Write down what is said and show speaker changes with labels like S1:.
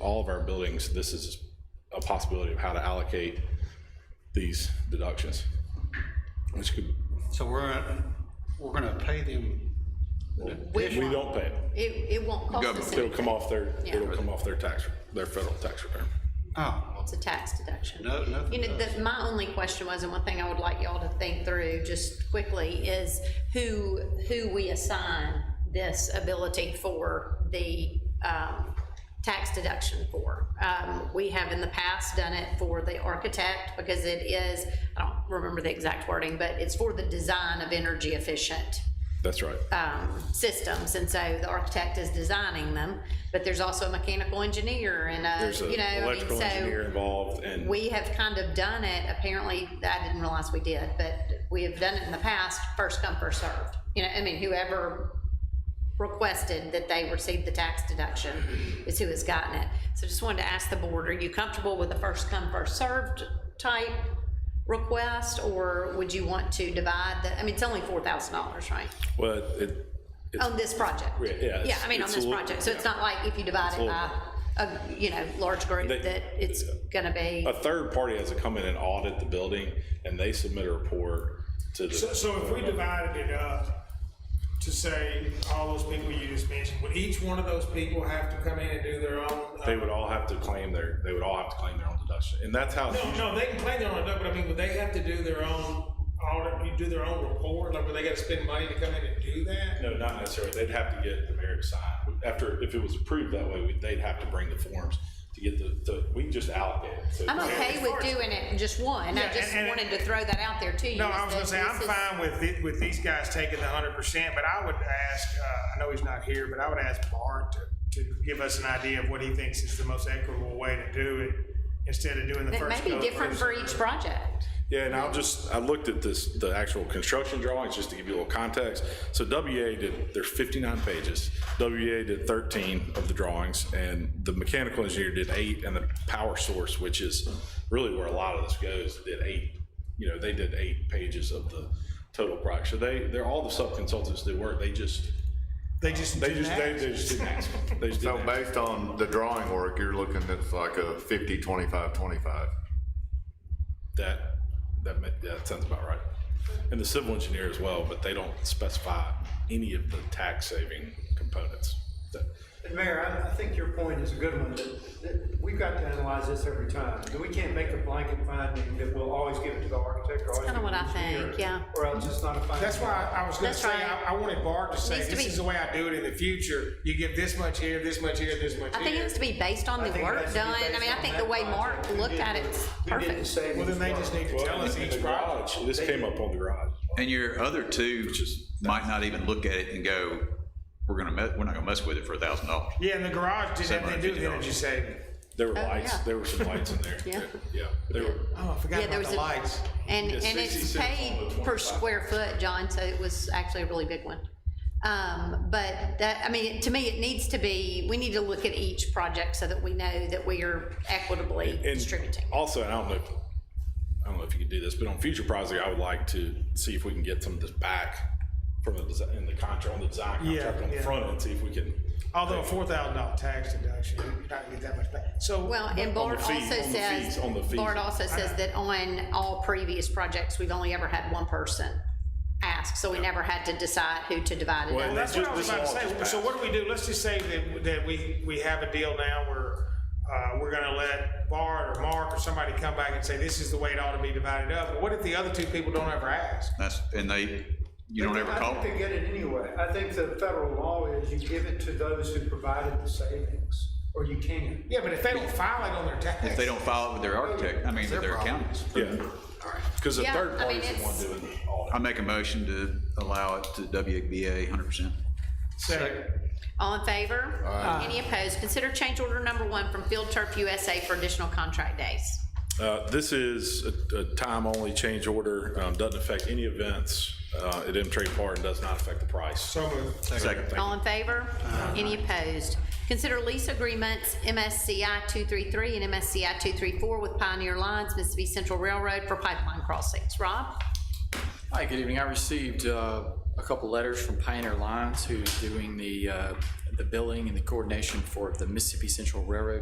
S1: all of our buildings, this is a possibility of how to allocate these deductions. Which could,
S2: So we're, we're gonna pay them,
S1: we don't pay it.
S3: It, it won't cost us
S1: It'll come
S3: anything.
S1: off their,
S3: Yeah.
S1: it'll come off their tax, their federal tax return.
S2: oh,
S3: It's a tax deduction.
S2: No- nothing
S3: You know, the, my only question was, and one thing I would like y'all to think through just quickly is who, who we assign this ability for the, um, tax deduction for. Um, we have in the past done it for the architect because it is, I don't remember the exact wording, but it's for the design of energy efficient
S1: That's right.
S3: um, systems, and so the architect is designing them, but there's also a mechanical engineer and
S1: There's
S3: a,
S1: an
S3: you know, I mean,
S1: electrical engineer
S3: so
S1: involved and.
S3: we have kind of done it, apparently, I didn't realize we did, but we have done it in the past, first come, first served. You know, I mean, whoever requested that they receive the tax deduction is who has gotten it. So just wanted to ask the board, are you comfortable with the first come, first served type request? Or would you want to divide the, I mean, it's only four thousand dollars, right?
S1: Well, it, it's,
S3: On this project?
S1: Yeah, yeah,
S3: Yeah, I mean, on
S1: it's- it's
S3: this
S1: a little-
S3: project, so it's not like if you divide it by a, you know, large group,
S1: They-
S3: that it's gonna be,
S1: a third party has to come in and audit the building and they submit a report to the.
S4: So, so if we divided it up to say all those people you just mentioned, would each one of those people have to come in and do their own? uh,
S1: They would all have to claim their, they would all have to claim their own deduction. And that's how,
S4: No, no, they can claim their own, but I mean, would they have to do their own audit, you do their own report? Like, would they gotta spend money to come in and do that?
S1: no, not necessarily. They'd have to get the mayor to sign. After, if it was approved that way, we- they'd have to bring the forms to get the, to, we just allocate it. So
S3: I'm okay with doing it just one,
S4: Yeah,
S3: I just
S4: and- and-
S3: wanted to throw that out there to you.
S4: No,
S3: is
S4: I was
S3: that
S4: gonna say, I'm
S3: this is-
S4: fine with it, with these guys taking the hundred percent, but I would ask, uh, I know he's not here, but I would ask Bart to, to give us an idea of what he thinks is the most equitable way to do it, instead of doing the
S3: That may
S4: first.
S3: be
S4: come,
S3: different
S4: first
S3: for
S4: served.
S3: each project.
S1: Yeah, and I'll just, I looked at this, the actual construction drawings, just to give you a little context. So WEA did, there's 59 pages. WEA did 13 of the drawings, and the mechanical engineer did eight, and the power source, which is really where a lot of this goes, did eight. You know, they did eight pages of the total project. So they, they're, all the sub-consultants that work, they just,
S4: They just.
S1: they just, they they just didn't ask. They just
S5: So
S1: didn't ask.
S5: based on the drawing work, you're looking at like a 50, 25, 25.
S1: That, that, ma- yeah, that sounds about right. And the civil engineer as well, but they don't specify any of the tax saving components. That-
S6: Mayor, I, I think your point is a good one, that, that we've got to analyze this every time. We can't make a blanket finding that we'll always give it to the architect or always
S3: kinda
S6: give it
S3: what I
S6: to the engineer.
S3: think, yeah.
S6: Or else it's not a finding.
S4: That's why I was gonna
S3: That's
S4: say,
S3: right.
S4: I, I wanted Bart to say,
S3: Needs to
S4: this
S3: be-
S4: is the way I do it in the future. You give this much here, this much here, this much
S3: I think it
S4: here.
S3: has to be based on
S6: I
S3: the
S6: think it has
S3: work
S6: to be
S3: done, I
S6: based
S3: mean, I
S6: on
S3: think
S6: that
S3: the way
S6: project.
S3: Mark
S6: Who
S3: looked
S6: did
S3: at
S6: the-
S3: it's
S6: Who did the
S3: perfect.
S6: savings
S4: Well, then they just
S6: work?
S4: need to tell us
S1: And the
S4: each project.
S1: garage, this came up on the garage.
S7: And your other two might not even look at it and go, we're gonna, me- we're not gonna mess with it for a thousand dollars.
S4: Yeah, and the garage didn't have anything to do with
S7: $750.
S4: energy saving.
S1: There were
S3: Oh,
S1: lights,
S3: yeah.
S1: there were some lights in there.
S3: Yeah.
S1: Yeah, there were.
S4: Oh, I forgot
S3: Yeah, there
S4: about
S3: was
S4: the
S3: a-
S4: lights.
S3: And,
S1: Yeah,
S3: and it's
S1: 66 on
S3: paid
S1: the
S3: per
S1: 25.
S3: square foot, John, so it was actually a really big one. Um, but that, I mean, to me, it needs to be, we need to look at each project so that we know that we are equitably
S1: And
S3: distributing.
S1: Also, and I don't know, if, I don't know if you can do this, but on future projects, I would like to see if we can get some of this back from the, desi- in the contract, on the design
S4: Yeah,
S1: contract on the
S4: yeah.
S1: front end, see if we can.
S4: Although a four thousand dollar tax deduction, you're not gonna get that much back. So.
S3: Well, and
S1: on the
S3: Bart also
S1: fees- on the
S3: says,
S1: fees- on the fees.
S3: Bart also says that on all previous projects, we've only ever had one person ask, so we never had to decide who to divide it
S1: Well,
S3: up.
S1: that-
S4: That's what I
S1: Just
S4: was
S1: this
S4: about to
S1: law
S4: say.
S1: just
S4: So what do we do? Let's just say that, that we, we have a deal now where, uh, we're gonna let Bart or Mark or somebody come back and say, this is the way it ought to be divided up. But what if the other two people don't ever ask?
S7: That's, and they, you don't ever call
S6: I think they
S7: them.
S6: get it anyway. I think the federal law is you give it to those who provided the savings, or you can.
S4: Yeah, but if they don't file it on their tax.
S7: If they don't file it with their architect, I mean, with their accountants.
S1: Yeah. Because the
S3: Yeah,
S1: third
S3: I
S1: party's
S3: mean,
S1: the one
S3: it's-
S1: doing the audit.
S7: I make a motion to allow it to WBA hundred percent.
S4: Second.
S3: All in favor? Any opposed? Consider change order number one from Field Turf USA for additional contract days.
S1: Uh, This is a- a time-only change order, um, doesn't affect any events uh, at M-Trade Park and does not affect the price.
S4: So moved.
S7: Second.
S3: All in favor? Any opposed? Consider lease agreements MSCI 233 and MSCI 234 with Pioneer Lines, Mississippi Central Railroad for pipeline crossings. Rob?
S8: Hi, good evening. I received uh, a couple letters from Pioneer Lines, who's doing the, uh, the billing and the coordination for the Mississippi Central Railroad